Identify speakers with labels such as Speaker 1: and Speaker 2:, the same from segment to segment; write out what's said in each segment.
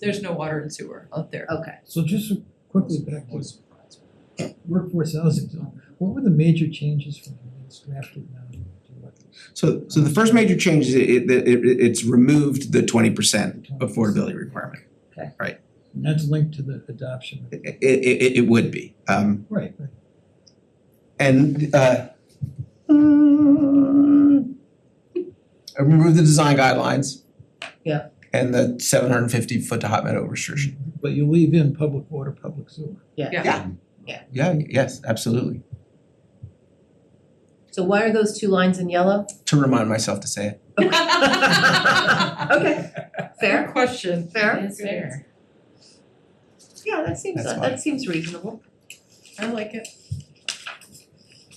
Speaker 1: there's no water and sewer out there.
Speaker 2: Okay,
Speaker 3: So just quickly back to workforce housing zone, what were the major changes from when it's drafted now to what?
Speaker 4: So so the first major change is it it it- it's removed the twenty percent affordability requirement.
Speaker 3: And that's linked to the adoption, of-
Speaker 4: It it it it would be. Um
Speaker 3: right, right.
Speaker 4: and uh mm, I removed the design guidelines.
Speaker 2: Yeah.
Speaker 4: And the seven hundred and fifty foot to hot meadow restriction.
Speaker 3: But you leave in public water, public sewer.
Speaker 2: yeah.
Speaker 1: Yeah.
Speaker 4: Yeah, yes, absolutely.
Speaker 2: So why are those two lines in yellow?
Speaker 4: To remind myself to say it.
Speaker 2: Okay, fair,
Speaker 1: Question.
Speaker 2: fair.
Speaker 5: It's fair.
Speaker 2: Yeah, that seems,
Speaker 4: That's fine.
Speaker 2: that seems reasonable.
Speaker 1: I like it.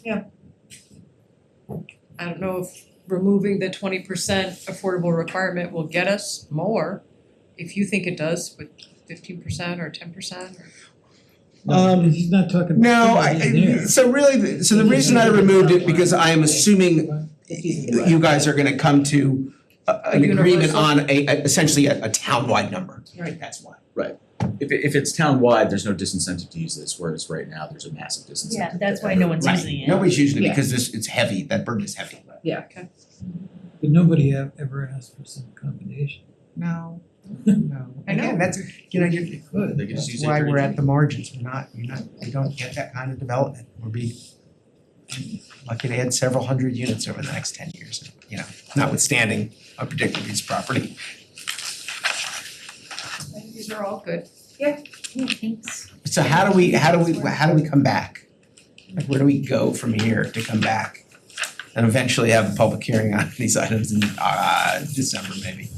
Speaker 2: Yeah.
Speaker 1: I don't know if removing the twenty percent affordable requirement will get us more, if you think it does with fifteen percent or ten percent or.
Speaker 3: No,
Speaker 4: Um,
Speaker 3: He's not talking
Speaker 4: No,
Speaker 3: about
Speaker 4: I
Speaker 3: somebody in
Speaker 4: I-
Speaker 3: there.
Speaker 4: so really, the- so the reason I removed it because I am assuming you guys are gonna come to a- an
Speaker 1: A
Speaker 4: agreement
Speaker 1: universal-
Speaker 4: on a a- essentially a a townwide number.
Speaker 2: Right.
Speaker 4: That's why.
Speaker 6: If it- if it's townwide, there's no disincentive to use this, whereas right now, there's a massive disincentive.
Speaker 5: Yeah, that's why no one's
Speaker 4: Right.
Speaker 5: using it.
Speaker 4: Nobody's using it
Speaker 2: Yeah.
Speaker 4: because this it's heavy, that burden is heavy.
Speaker 3: But nobody ev- ever asked for some combination.
Speaker 4: No, no.
Speaker 1: I know.
Speaker 4: Again, that's, you know, you're
Speaker 3: They could.
Speaker 6: They could just
Speaker 4: that's
Speaker 6: use it
Speaker 4: why we're
Speaker 6: during-
Speaker 4: at the margins, we're not, you're not, we don't get that kind of development, we'll be lucky to add several hundred units over the next ten years, you know, notwithstanding a predictive use property.
Speaker 1: I think These are all good.
Speaker 5: Hey, thanks.
Speaker 4: So how do we, how do we, how do we come back? Like where do we go from here to come back? And eventually have a public hearing on these items in uh December maybe?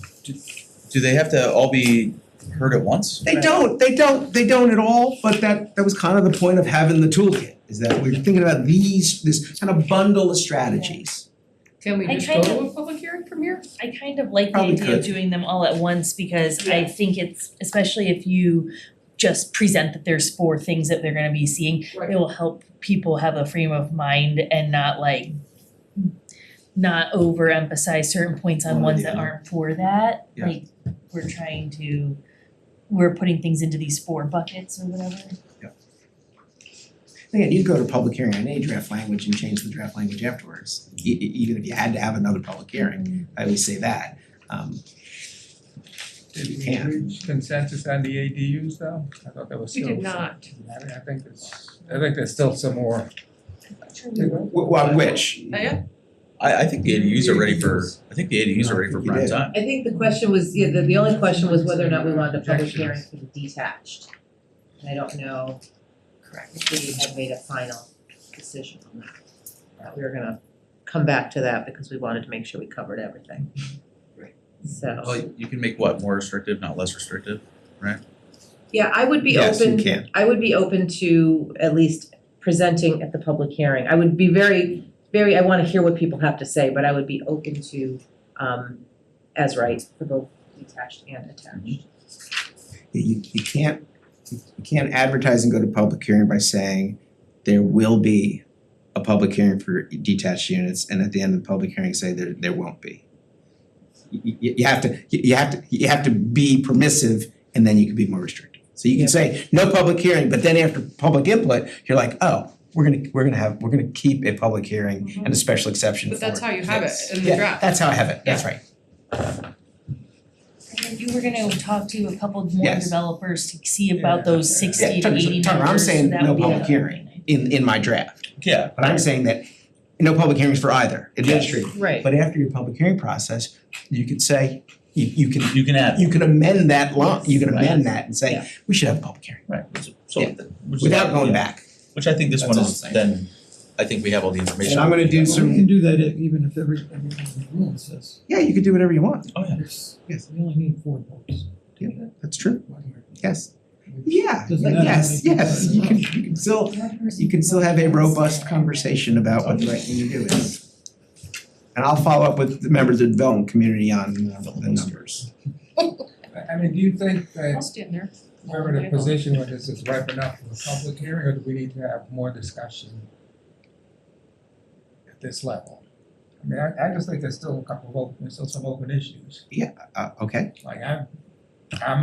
Speaker 7: Do they have to all be heard at once?
Speaker 4: They don't, they don't, they don't at all, but that that was kind of the point of having the toolkit, is that we're thinking about these, this kind of bundle of strategies.
Speaker 1: Can we
Speaker 5: I
Speaker 1: just go
Speaker 5: kind
Speaker 1: to
Speaker 5: of-
Speaker 1: a public hearing from here?
Speaker 5: I kind of like the
Speaker 4: Probably
Speaker 5: idea
Speaker 4: could.
Speaker 5: of doing them all at once because I think it's, especially if you just present that there's four things that they're gonna be seeing, it will help people have a frame of mind and not like not overemphasize certain points on
Speaker 4: One or
Speaker 5: ones
Speaker 4: the
Speaker 5: that
Speaker 4: other.
Speaker 5: aren't for that.
Speaker 4: Yeah.
Speaker 5: Like, we're trying to, we're putting things into these four buckets or whatever.
Speaker 4: Again, you'd go to public hearing on any draft language and change the draft language afterwards, e- e- even if you had to have another public hearing, I always say that. Um
Speaker 8: Did
Speaker 4: You
Speaker 8: we
Speaker 4: can.
Speaker 8: reach consensus on the ADUs though? I thought there was
Speaker 1: We
Speaker 8: still
Speaker 1: did not.
Speaker 8: I think- I think there's, I think there's still some more.
Speaker 4: wh- wh- which,
Speaker 1: Oh, Yeah,
Speaker 7: I I think the ADUs are ready for, I think the ADUs are ready for prime time.
Speaker 2: I think the question was, yeah, the, the only question was whether or not we wanted a public hearing for the detached. And I don't know if we had made a final decision on that. That we were gonna come back to that because we wanted to make sure we covered everything.
Speaker 4: Right.
Speaker 2: So,
Speaker 7: Well, you can make what, more restrictive, not less restrictive?
Speaker 2: yeah, I would be
Speaker 4: yes, you
Speaker 2: open,
Speaker 4: can.
Speaker 2: I would be open to at least presenting at the public hearing. I would be very, very, I wanna hear what people have to say, but I would be open to, um, as right for both detached and attached.
Speaker 4: you you can't, you can't advertise and go to public hearing by saying there will be a public hearing for detached units and at the end of the public hearing say there there won't be. You you you have to, you you have to, you have to be permissive and then you can be more restrictive. So you can say no public hearing, but then after public input, you're like, oh, we're gonna, we're gonna have, we're gonna keep a public hearing and a special exception for
Speaker 1: Mm-hmm. But that's how you have it
Speaker 4: this."
Speaker 1: in the
Speaker 4: Yeah,
Speaker 1: draft.
Speaker 4: that's how I have it, that's right.
Speaker 5: And then you were gonna talk to a couple more
Speaker 4: Yes.
Speaker 5: developers to see about those
Speaker 4: Yeah,
Speaker 5: sixty to
Speaker 4: Tucker,
Speaker 5: eighty
Speaker 4: Tucker, I'm
Speaker 5: numbers,
Speaker 4: saying
Speaker 5: that
Speaker 4: no
Speaker 5: would be
Speaker 4: public
Speaker 5: a-
Speaker 4: hearing. In in my draft.
Speaker 7: Yeah.
Speaker 4: But I'm saying that no public hearings for either administrative.
Speaker 2: Right.
Speaker 4: But after your public hearing process, you could say, you you can
Speaker 7: You can add,
Speaker 4: you can amend that law, you can
Speaker 7: Right.
Speaker 4: amend that and
Speaker 2: Yeah.
Speaker 4: say, we should have a public hearing
Speaker 7: right, so.
Speaker 4: Yeah.
Speaker 7: which is-
Speaker 4: without going
Speaker 7: yeah.
Speaker 4: back.
Speaker 7: Which I think this
Speaker 4: That's
Speaker 7: one
Speaker 4: all
Speaker 7: is
Speaker 4: I'm saying.
Speaker 7: then, I think we have all the information.
Speaker 4: And I'm gonna do
Speaker 3: Well,
Speaker 4: some-
Speaker 3: You can do that if- even if every, everyone in the room says,
Speaker 4: Yeah, you could do whatever you want.
Speaker 7: Oh, yeah.
Speaker 3: yes,
Speaker 4: Yes.
Speaker 3: we only need four votes.
Speaker 4: Yeah, that's true.
Speaker 3: One way or the
Speaker 4: Yes. Yeah,
Speaker 3: Doesn't
Speaker 4: like,
Speaker 3: matter how
Speaker 4: yes,
Speaker 3: many people
Speaker 4: yes,
Speaker 3: are
Speaker 4: you can
Speaker 3: involved.
Speaker 4: you can still you can still have a robust conversation about what the right thing to do is. And I'll follow up with the members of the development community on uh, the numbers.
Speaker 8: I- I mean, do you think
Speaker 1: I'll
Speaker 8: that
Speaker 1: stand there.
Speaker 8: we're in a position where this is ripe enough for a public hearing or do we need to have more discussion at this level? I mean, I I just think there's still a couple of open, there's still some open issues.
Speaker 4: Uh okay.
Speaker 8: Like I'm, I'm